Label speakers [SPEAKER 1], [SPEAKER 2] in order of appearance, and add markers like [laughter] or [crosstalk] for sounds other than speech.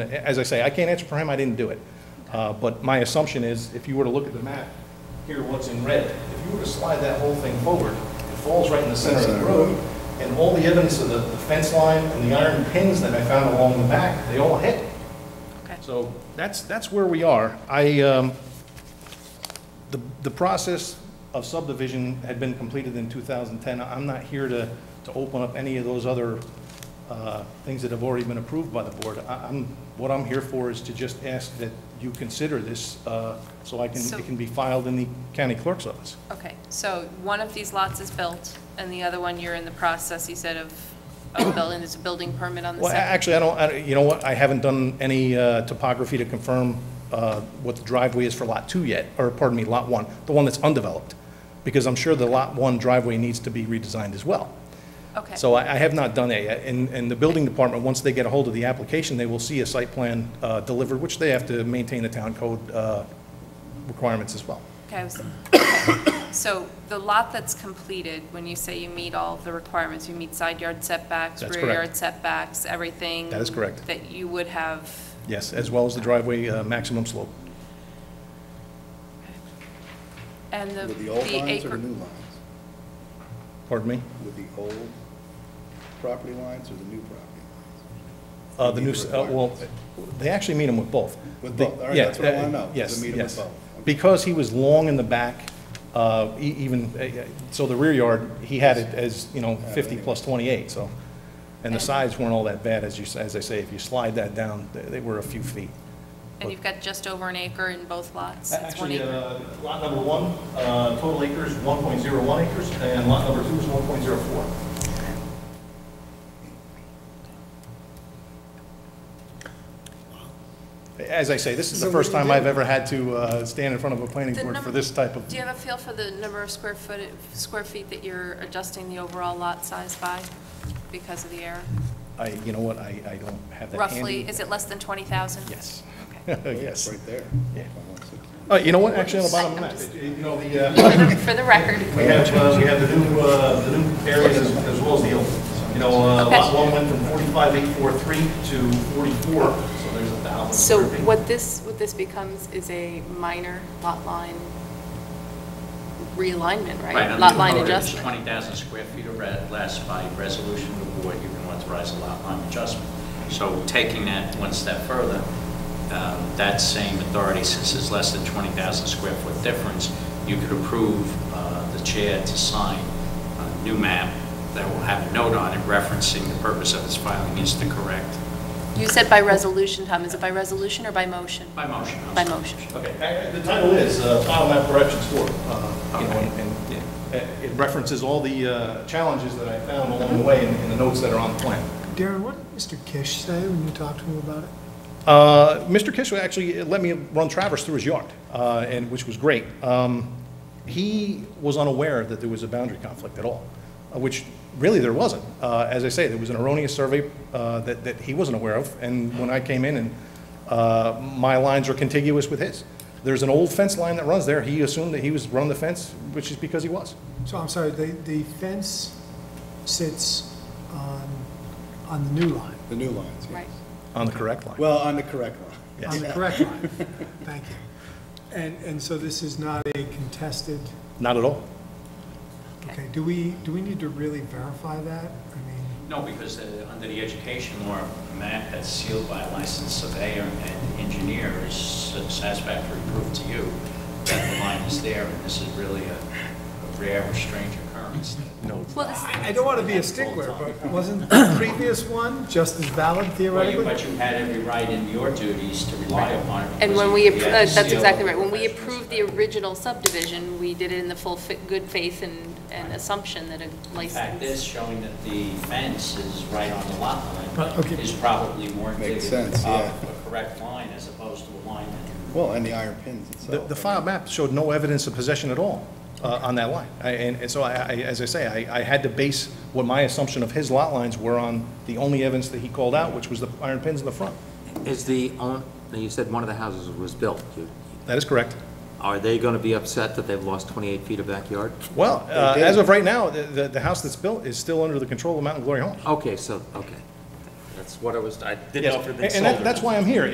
[SPEAKER 1] As I say, I can't answer for him, I didn't do it. Uh, But my assumption is, if you were to look at the map, here what's in red, if you were to slide that whole thing forward, it falls right in the center of the road, and all the evidence of the the fence line and the iron pins that I found along the back, they all hit.
[SPEAKER 2] Okay.
[SPEAKER 1] So that's, that's where we are. I, um, the, the process of subdivision had been completed in 2010. I'm not here to, to open up any of those other uh, things that have already been approved by the board. I- I'm, what I'm here for is to just ask that you consider this uh, so I can,
[SPEAKER 2] So-
[SPEAKER 1] it can be filed in the county clerk's office.
[SPEAKER 2] Okay, so one of these lots is built, and the other one, you're in the process, you said, of,
[SPEAKER 1] [coughs]
[SPEAKER 2] of building, there's a building permit on the
[SPEAKER 1] Well, a-
[SPEAKER 2] second?
[SPEAKER 1] actually, I don't, I don't- you know what, I haven't done any uh, topography to confirm uh, what the driveway is for Lot 2 yet, or pardon me, Lot 1, the one that's undeveloped, because I'm sure the Lot 1 driveway needs to be redesigned as well.
[SPEAKER 2] Okay.
[SPEAKER 1] So I I have not done that yet, and, and the building department, once they get a hold of the application, they will see a site plan uh, delivered, which they have to maintain the town code uh, requirements as well.
[SPEAKER 2] Okay, I
[SPEAKER 1] [coughs]
[SPEAKER 2] was- okay. So the lot that's completed, when you say you meet all the requirements, you meet side yard setbacks,
[SPEAKER 1] That's
[SPEAKER 2] rear
[SPEAKER 1] correct.
[SPEAKER 2] yard setbacks, everything?
[SPEAKER 1] That is correct.
[SPEAKER 2] That you would have,
[SPEAKER 1] Yes, as well as the driveway uh, maximum slope.
[SPEAKER 2] and the,
[SPEAKER 3] With the old
[SPEAKER 2] the
[SPEAKER 3] lines or the
[SPEAKER 2] acre,
[SPEAKER 3] new lines?
[SPEAKER 1] Pardon me?
[SPEAKER 3] With the old property lines or the new property?
[SPEAKER 1] Uh, The new, s- uh, well, they actually meet him with both.
[SPEAKER 3] With both, all right,
[SPEAKER 1] Yeah,
[SPEAKER 3] that's what I wanna know, is
[SPEAKER 1] Yes,
[SPEAKER 3] they meet 'em with
[SPEAKER 1] yes.
[SPEAKER 3] both, okay.
[SPEAKER 1] Because he was long in the back, uh, e- even, uh, uh, so the rear yard, he had it as, you know, 50 plus 28, so. And the sides weren't all that bad, as you, s- as I say, if you slide that down, they- they were a few feet.
[SPEAKER 2] and you've got just over an acre in both lots? It's one
[SPEAKER 1] Actually,
[SPEAKER 2] acre.
[SPEAKER 1] uh, lot number one, uh, total acres, 1.01 acres, and lot number two is 1.04. As I say, this is the first time I've ever had to uh, stand in front of a planning
[SPEAKER 2] The
[SPEAKER 1] board for
[SPEAKER 2] number-
[SPEAKER 1] this type of,
[SPEAKER 2] Do you have a feel for the number of square foot, square feet that you're adjusting the overall lot size by because of the error?
[SPEAKER 1] I, you know what, I I don't have that handy.
[SPEAKER 2] Roughly, is it less than 20,000?
[SPEAKER 1] Yes. [laughs]
[SPEAKER 2] Okay.
[SPEAKER 1] Yes.
[SPEAKER 3] Right there.
[SPEAKER 1] Yeah.
[SPEAKER 3] On 160.
[SPEAKER 1] Uh, You know what, actually, on the bottom of the
[SPEAKER 2] I'm
[SPEAKER 1] map,
[SPEAKER 2] just-
[SPEAKER 1] it- it- you know, the, uh,
[SPEAKER 2] For the- For the record.
[SPEAKER 1] We have, uh, we have the new, uh, the new areas as as well as the old. You know, uh,
[SPEAKER 2] Okay.
[SPEAKER 1] lot one went from forty-five eight four three to forty-four, so there's a thousand.
[SPEAKER 2] So
[SPEAKER 1] square feet.
[SPEAKER 2] what this, what this becomes is a minor lot line realignment, right?
[SPEAKER 4] under
[SPEAKER 2] Lot
[SPEAKER 4] the
[SPEAKER 2] line
[SPEAKER 4] code, it's
[SPEAKER 2] adjustment.
[SPEAKER 4] 20,000 square feet or re- less by resolution of the board, you can authorize a lot line adjustment. So taking that one step further, um, that same authority, since it's less than 20,000 square foot difference, you could approve uh, the chair to sign a new map that will have a note on it referencing the purpose of its filing is to correct.
[SPEAKER 2] You said by resolution, Tom. Is it by resolution or by motion?
[SPEAKER 4] By motion. I'm
[SPEAKER 2] By
[SPEAKER 4] sorry.
[SPEAKER 2] motion.
[SPEAKER 4] Okay.
[SPEAKER 1] Uh, The title is, uh, Final Map Corrections for, uh, you know, and, and it- it references all the, uh, challenges that I found along the way in, in the notes that are on the plan.
[SPEAKER 5] Darren, what did Mr. Kish say when you talked to him about it?
[SPEAKER 1] Uh, Mr. Kishwa actually let me run Traverse through his yard, uh, and, which was great. Um, He was unaware that there was a boundary conflict at all, uh, which really there wasn't. Uh, As I say, there was an erroneous survey uh, that, that he wasn't aware of, and when I came in and uh, my lines are contiguous with his. There's an old fence line that runs there. He assumed that he was running the fence, which is because he was.
[SPEAKER 5] So I'm sorry, the, the fence sits on, on the new line,
[SPEAKER 3] The new lines, yes.
[SPEAKER 2] Right.
[SPEAKER 1] On the correct line.
[SPEAKER 3] Well, on the correct line.
[SPEAKER 5] on the correct line.
[SPEAKER 4] [laughs]
[SPEAKER 5] Thank you. And, and so this is not a contested,
[SPEAKER 1] Not at all.
[SPEAKER 5] okay, do we, do we need to really verify that? I mean,
[SPEAKER 4] No, because uh, under the education law, a map that's sealed by a licensed surveyor and engineer is satisfactory proof to you that the line is there, and this is really a a rare or strange occurrence.
[SPEAKER 1] No.
[SPEAKER 2] Well, this,
[SPEAKER 5] I, I don't want to be a stickler, but wasn't the previous one just as valid
[SPEAKER 4] Well, you-
[SPEAKER 5] theoretically?
[SPEAKER 4] But you had every right in your duties to rely upon it.
[SPEAKER 2] and
[SPEAKER 4] because
[SPEAKER 2] when
[SPEAKER 4] you-
[SPEAKER 2] we,
[SPEAKER 4] you
[SPEAKER 2] appro- uh,
[SPEAKER 4] had to
[SPEAKER 2] that's
[SPEAKER 4] seal
[SPEAKER 2] exactly
[SPEAKER 4] it.
[SPEAKER 2] right. When we approved the original subdivision, we did it in the full, fa- good faith and, and assumption that a
[SPEAKER 4] In fact, this
[SPEAKER 2] license.
[SPEAKER 4] showing that the fence is right on the lot
[SPEAKER 5] Right,
[SPEAKER 4] line
[SPEAKER 5] okay.
[SPEAKER 4] is probably more
[SPEAKER 3] Makes
[SPEAKER 4] indicative
[SPEAKER 3] sense, yeah.
[SPEAKER 4] of a correct line as opposed to a line that...
[SPEAKER 3] Well, and the iron pins
[SPEAKER 1] The,
[SPEAKER 3] itself.
[SPEAKER 1] the file map showed no evidence of possession at all uh, on that line. I- And, and so I, I, as I say, I, I had to base what my assumption of his lot lines were on the only evidence that he called out, which was the iron pins in the front.
[SPEAKER 6] Is the own, now, you said one of the houses was built. You-
[SPEAKER 1] That is correct.
[SPEAKER 6] Are they going to be upset that they've lost 28 feet of backyard?
[SPEAKER 1] Well, uh,
[SPEAKER 3] did.
[SPEAKER 1] as of right now, the, the, the house that's built is still under the control of Mountain Glory Homes.
[SPEAKER 6] Okay, so, okay. That's what I was, I didn't
[SPEAKER 1] Yes,
[SPEAKER 6] know if it had been
[SPEAKER 1] and-
[SPEAKER 6] sold
[SPEAKER 1] And
[SPEAKER 6] or
[SPEAKER 1] that- that's
[SPEAKER 6] not.
[SPEAKER 1] why I'm here.